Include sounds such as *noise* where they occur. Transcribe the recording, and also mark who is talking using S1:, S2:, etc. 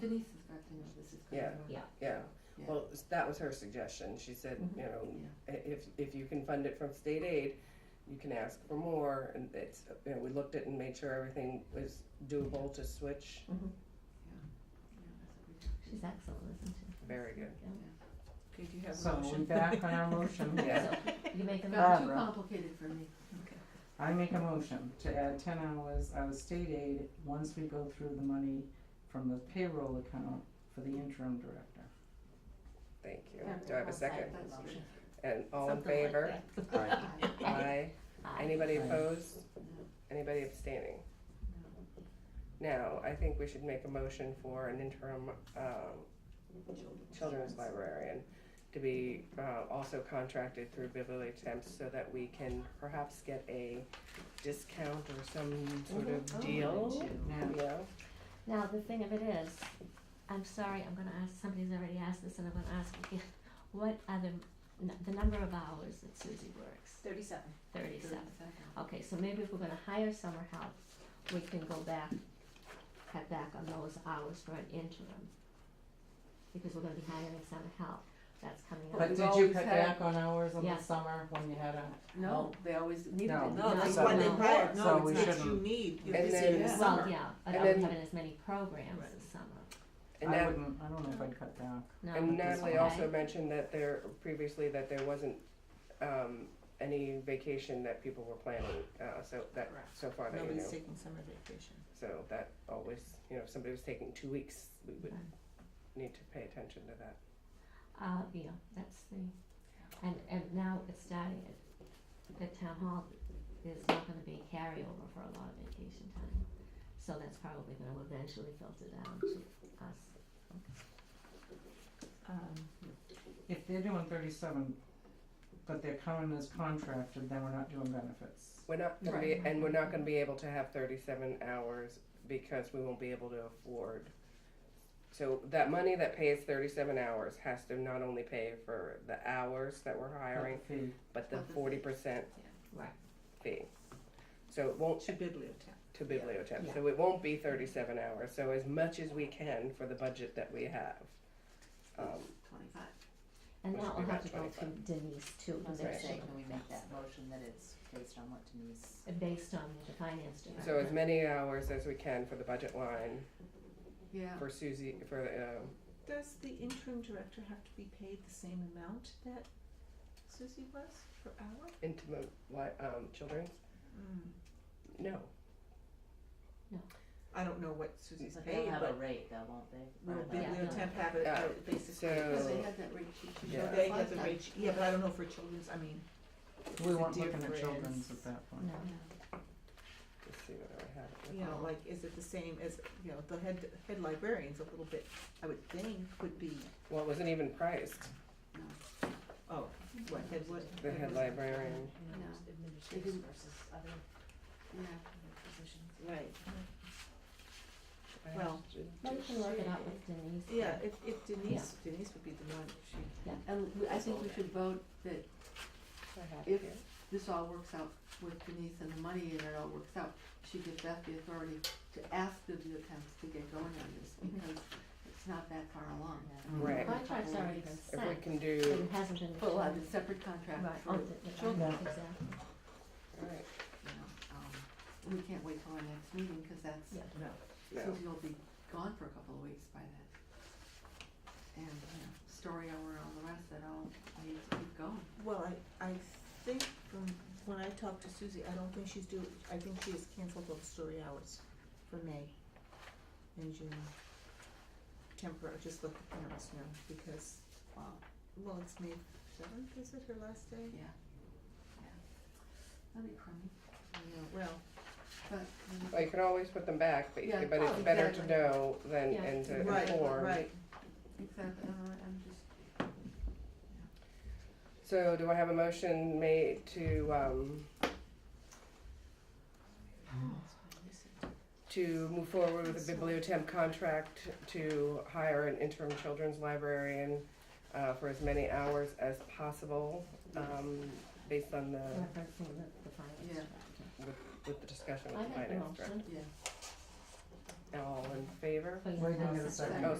S1: Denise has got to know this is going
S2: Yeah.
S1: on.
S3: Yeah.
S2: yeah.
S1: Yeah.
S2: Well, s- that was her suggestion. She said,
S3: Mhm.
S2: you know,
S1: Yeah.
S2: i- if, if you can fund it from state aid, you can ask for more, and it's, you know, we looked at and made sure everything was doable to switch.
S1: Yeah, that's a good
S3: She's excellent, isn't she?
S2: Very good.
S1: idea. Okay, do you have a
S4: So
S1: motion?
S4: we're back on our
S3: *laughs*
S4: motion.
S2: Yeah.
S3: So, You make
S2: *laughs*
S3: a
S1: Got
S3: motion,
S1: too
S4: Barbara.
S1: complicated for me.
S4: I make a motion to add ten hours out of state aid once we go through the money from the payroll account for the interim director.
S2: Thank you. Do I have a second?
S1: That's good.
S2: And all in
S3: something like
S2: favor?
S3: that.
S2: *laughs*
S3: Ah.
S2: Aye.
S3: Aye.
S2: Anybody
S4: Aye.
S2: opposed?
S1: No.
S2: Anybody abstaining? Now, I think we should make a motion for an interim, um, children's librarian to be uh, also contracted through Beverly Temps so that we can perhaps get a discount or some sort
S1: Oh,
S2: of deal.
S1: too.
S4: Now,
S2: Yeah,
S3: Now, the thing of it is, I'm sorry, I'm gonna ask, somebody's already asked this and I'm gonna ask again. *laughs* What are the, n- the number of hours that Susie works?
S5: Thirty-seven.
S3: Thirty-seven.
S1: Thirty-seven.
S3: Okay, so maybe if we're gonna hire summer help, we can go back, cut back on those hours for an interim. Because we're gonna be hiring summer help, that's coming up.
S4: but
S1: we've
S4: did you
S1: always
S4: cut
S1: had-
S4: back on hours in
S3: Yeah.
S4: the summer when you had a?
S1: No, they always needed
S4: No.
S1: it.
S5: No,
S3: No,
S5: that's
S3: so-
S5: why they
S3: no.
S5: brought,
S4: So
S5: no,
S4: we
S5: it's not you
S4: shouldn't-
S5: need, you're
S2: And
S5: busy
S2: then-
S5: in the
S2: Yeah.
S3: Well,
S5: summer.
S3: yeah, but
S2: And
S3: I wouldn't
S2: then-
S3: have it as many programs in summer,
S2: and
S4: I
S2: Nat-
S4: wouldn't, I don't know if I'd cut back.
S3: no.
S2: and
S4: this
S2: Natalie
S4: one.
S3: eh?
S2: also mentioned that there, previously, that there wasn't um, any vacation that people were planning, uh, so that,
S5: Correct.
S2: so far that you know.
S5: Nobody's taking summer vacation.
S2: So that always, you know, if somebody was taking two weeks, we would
S3: Okay.
S2: need to pay attention to that.
S3: Uh, yeah, that's the, and, and now it's starting at, at town hall, there's not gonna be carryover for a lot of vacation time. So that's probably gonna eventually filter down to us.
S5: Um,
S4: If they're doing thirty-seven, but they're counting as contracted, then we're not doing benefits.
S2: We're not gonna be, and we're not gonna be able to have thirty-seven hours because we won't be able to afford. So that money that pays thirty-seven hours has to not only pay for the hours that we're
S4: But
S2: hiring,
S4: the fee-
S2: but the
S1: But the fee.
S2: forty percent
S3: Right.
S2: fee. So it won't,
S5: to bibliotech.
S2: to bibliotech, so it won't be thirty-seven hours, so as much as we can for the budget that we have. Um,
S1: Twenty-five.
S3: And
S2: Which
S3: that
S2: would
S3: will
S2: be
S3: have to go
S2: about
S3: through Denise too,
S6: I was
S3: because
S6: gonna
S3: they're
S6: say, can we make that motion that it's based on what Denise?
S3: Uh, based on the finance department.
S2: So as many hours as we can for the budget line,
S1: Yeah.
S2: for Susie, for, um,
S5: Does the interim director have to be paid the same amount that Susie was per hour?
S2: intimate, li- um, children's,
S5: Hmm.
S2: no.
S5: I don't know what Susie's
S6: But they'll
S5: paid,
S6: have a
S5: but
S6: rate though, won't they?
S5: will
S6: Or they'll-
S3: Yeah.
S5: bibliotech have it,
S2: Yeah.
S5: uh, basically,
S1: Yeah,
S2: So-
S1: they had that rate sheet. She showed
S2: Oh. Yeah.
S1: us
S5: they have
S1: last
S5: the
S1: time.
S5: rate, sheet. yeah, but I don't know for children's, I mean,
S4: We
S5: the
S4: weren't looking at
S5: difference.
S4: children's at that point.
S3: No,
S2: Let's see what I have.
S5: you know, like, is it the same as, you know, the head, head librarians a little bit, I would think, would be,
S2: Well, it wasn't even priced,
S5: oh, what, head what?
S2: the head librarian,
S1: No.
S6: Administrators
S1: Mhm.
S6: versus other
S1: Yeah.
S6: positions.
S5: Right,
S2: I
S5: Well,
S3: but you can work it out with Denise.
S5: yeah, if, if Denise, Denise would be the one, she,
S1: And we- I think we should vote that
S2: I have it
S1: if
S2: here.
S1: this all works out with Denise and the money and it all works out, she gives back the authority to ask bibliotechs to get going on this
S3: Mm-hmm.
S1: because it's not that far along. I mean,
S2: Right.
S1: a couple
S3: Contract's
S1: of
S3: already
S1: weeks.
S3: been
S2: If we
S3: sent,
S2: can
S3: but
S2: do,
S3: it hasn't been.
S1: Well, I have
S3: determined.
S1: a separate contract
S3: Right, Oh.
S1: for,
S3: on
S1: you
S3: the, the,
S1: children.
S3: exactly,
S2: alright,
S1: know, um, we can't wait till our next meeting because that's,
S3: Yeah.
S5: no.
S2: no,
S1: Susie will be gone for a couple of weeks by then. And, you know, story hour and all the rest, that all needs to keep going.
S5: Well, I, I think from when I talked to Susie, I don't think she's due, I think she has canceled all the story hours for May and June. Temporary, just let the parents know because,
S1: Wow.
S5: well, it's May seventh, is it her last day?
S1: Yeah, yeah. That'd be crummy,
S5: I know, well,
S1: but. um,
S2: well, you can always put them back, but,
S1: Yeah.
S2: but
S1: Oh,
S2: it's better to
S1: exactly.
S2: know than,
S3: Yeah.
S2: and to
S5: right,
S2: inform.
S5: right,
S1: Exactly, all right, uh, I'm just,
S2: So do I have a motion made to, um, to move forward with a bibliotemp contract to hire an interim children's librarian uh, for as many hours as possible, um, based on the,
S3: referencing the, the finance
S1: Yeah.
S3: department.
S2: with the discussion
S3: I
S2: with the
S3: make the
S2: finance director.
S3: motion.
S1: yeah.
S2: I
S4: All in favor?
S3: But you
S2: Wait a
S3: have
S2: minute,
S3: to
S2: second.
S3: say-
S4: Oh,